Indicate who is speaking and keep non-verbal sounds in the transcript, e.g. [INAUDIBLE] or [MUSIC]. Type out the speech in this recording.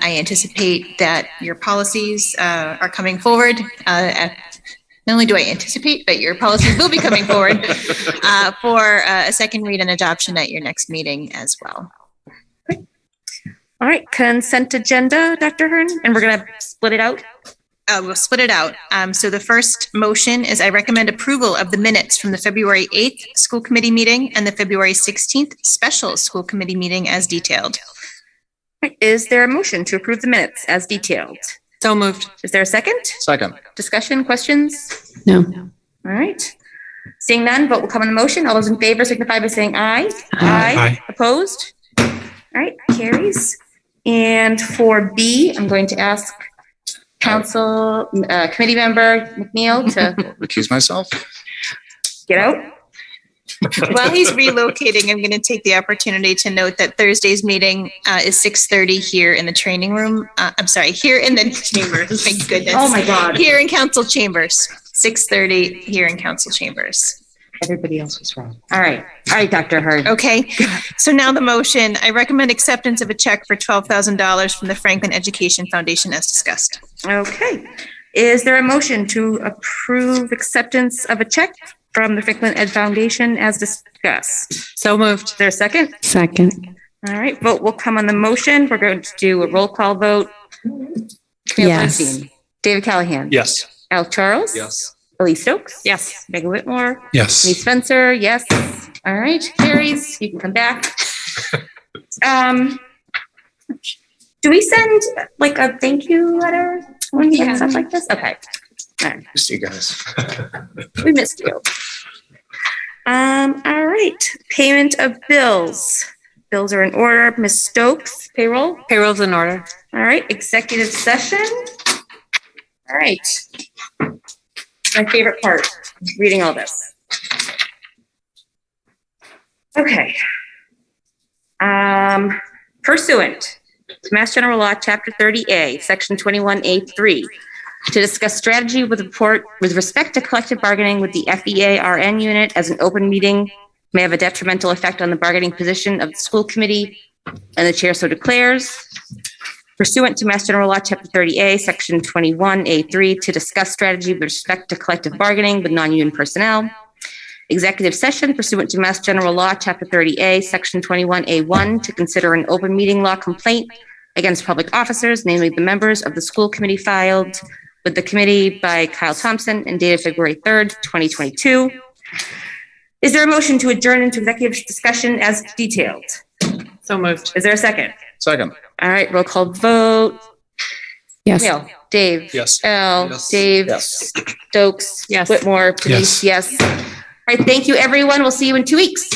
Speaker 1: I anticipate that your policies uh, are coming forward. uh, at- Not only do I anticipate, but your policies will be coming forward uh, for uh, a second read and adoption at your next meeting as well.
Speaker 2: All right, consent agenda, Dr. Hearn, and we're gonna split it out.
Speaker 1: Uh, We'll split it out. Um, So the first motion is I recommend approval of the minutes from the February 8th school committee meeting and the February 16th special school committee meeting as detailed.
Speaker 2: All right, Is there a motion to approve the minutes as detailed?
Speaker 3: So moved.
Speaker 2: Is there a second?
Speaker 4: Second.
Speaker 2: Discussion, questions?
Speaker 3: No.
Speaker 2: All right. Seeing none, vote will come on the motion. All those in favor signify by saying aye. Aye. Opposed? All right, carries. And for B, I'm going to ask council, uh, committee member McNeil
Speaker 3: [LAUGHS]
Speaker 2: to
Speaker 4: Recuse myself.
Speaker 2: get out.
Speaker 1: While he's relocating, I'm going to take the opportunity to note that Thursday's meeting uh, is 6:30 here in the training room. Uh, I'm sorry, here in the chambers. [LAUGHS] Thank goodness.
Speaker 2: Oh, my God.
Speaker 1: Here in council chambers, 6:30 here in council chambers.
Speaker 3: Everybody else was wrong.
Speaker 2: All right. All right, Dr. Hurd.
Speaker 1: Okay, so now the motion. I recommend acceptance of a check for $12,000 from the Franklin Education Foundation as discussed.
Speaker 2: Okay. Is there a motion to approve acceptance of a check from the Franklin Ed Foundation as discussed?
Speaker 3: So moved.
Speaker 2: Is there a second?
Speaker 5: Second,
Speaker 2: All right, vote will come on the motion. We're going to do a roll call vote. Camille
Speaker 5: Yes.
Speaker 2: Bernstein, David Callahan.
Speaker 4: Yes.
Speaker 2: Al Charles.
Speaker 4: Yes.
Speaker 2: Elise Stokes.
Speaker 3: Yes.
Speaker 2: Megan Whitmore. Lee
Speaker 4: Yes.
Speaker 2: Spencer, yes. All right, carries. You can
Speaker 4: [LAUGHS]
Speaker 2: come back. Um, do we send like a thank you letter when we get stuff like this? Okay,
Speaker 4: You guys.
Speaker 2: we missed you. Um, all right, payment of bills. Bills are in order. Ms. Stokes, payroll.
Speaker 3: Payroll's in order.
Speaker 2: All right, executive session. All right. My favorite part, reading all this. Okay. Um, pursuant to Mass General Law, Chapter 30A, Section 21A3, to discuss strategy with report with respect to collective bargaining with the E FEA RN unit as an open meeting may have a detrimental effect on the bargaining position of the school committee, and the chair so declares pursuant to Mass General Law, Chapter 30A, Section 21A3, to discuss strategy with respect to collective bargaining with non-union personnel. Executive session pursuant to Mass General Law, Chapter 30A, Section 21A1, to consider an open meeting law complaint against public officers, namely the members of the school committee filed with the committee by Kyle Thompson and dated February 3rd, 2022. Is there a motion to adjourn into executive discussion as detailed?
Speaker 3: So moved.
Speaker 2: Is there a second?
Speaker 4: Second.
Speaker 2: All right, roll call vote.
Speaker 5: yes.
Speaker 2: Neil, Dave.
Speaker 4: Yes.
Speaker 2: Al,
Speaker 4: Yes.
Speaker 2: Dave,
Speaker 4: Yes.
Speaker 2: Stokes,
Speaker 3: Yes.
Speaker 2: Whitmore, Denise, yes. All right, thank you, everyone. We'll see you in two weeks.